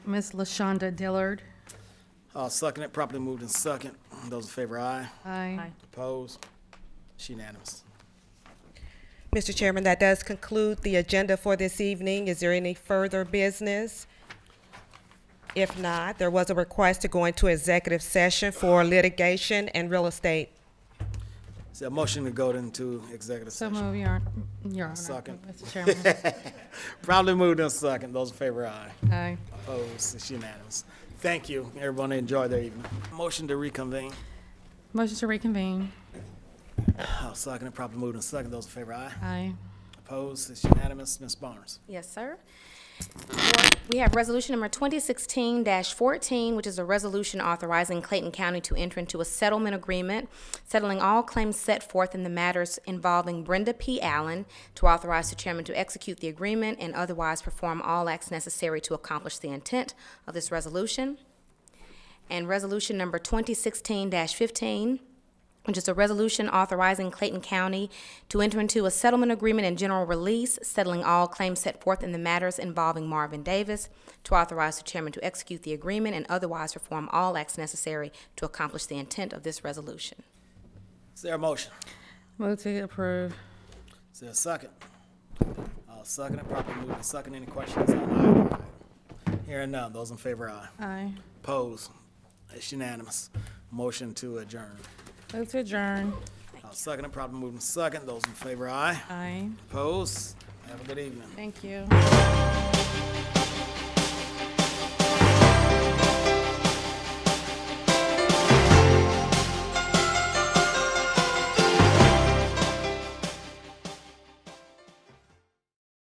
Ms. LaShonda Dillard. All second Uh, it, properly moved in second. Those in favor, aye. Aye. Opposed? It's unanimous. Mr. Chairman, that does conclude the agenda for this evening. Is there any further business? If not, there was a request to go into executive session for litigation and real estate. Is there a motion to go into executive So session? move, Your Hon- Your Honor. Second. Mr. Chairman. Properly moved in second. Those in favor, aye. Aye. Opposed? It's unanimous. Thank you. Everyone enjoy their evening. Motion to reconvene. Motion to reconvene. All second Uh, it, properly moved in second. Those in favor, aye. Aye. Opposed? It's unanimous. Ms. Barnes. Yes, sir. We have resolution number 2016-14, which is a resolution authorizing Clayton County to enter into a settlement agreement, settling all claims set forth in the matters involving Brenda P. Allen, to authorize the chairman to execute the agreement and otherwise perform all acts necessary to accomplish the intent of this resolution. And resolution number 2016-15, which is a resolution authorizing Clayton County to enter into a settlement agreement and general release, settling all claims set forth in the matters involving Marvin Davis, to authorize the chairman to execute the agreement and otherwise perform all acts necessary to accomplish the intent of this resolution. Is there a motion? Move to approve. Is there a second? All second it, properly moved in second. Any questions on either? Hearing none. Those in favor, aye. Aye. Opposed? It's unanimous. Motion to adjourn. Move to adjourn. I'll second it, probably moving second. Those in favor, aye. Aye. Opposed? Have a good evening. Thank you.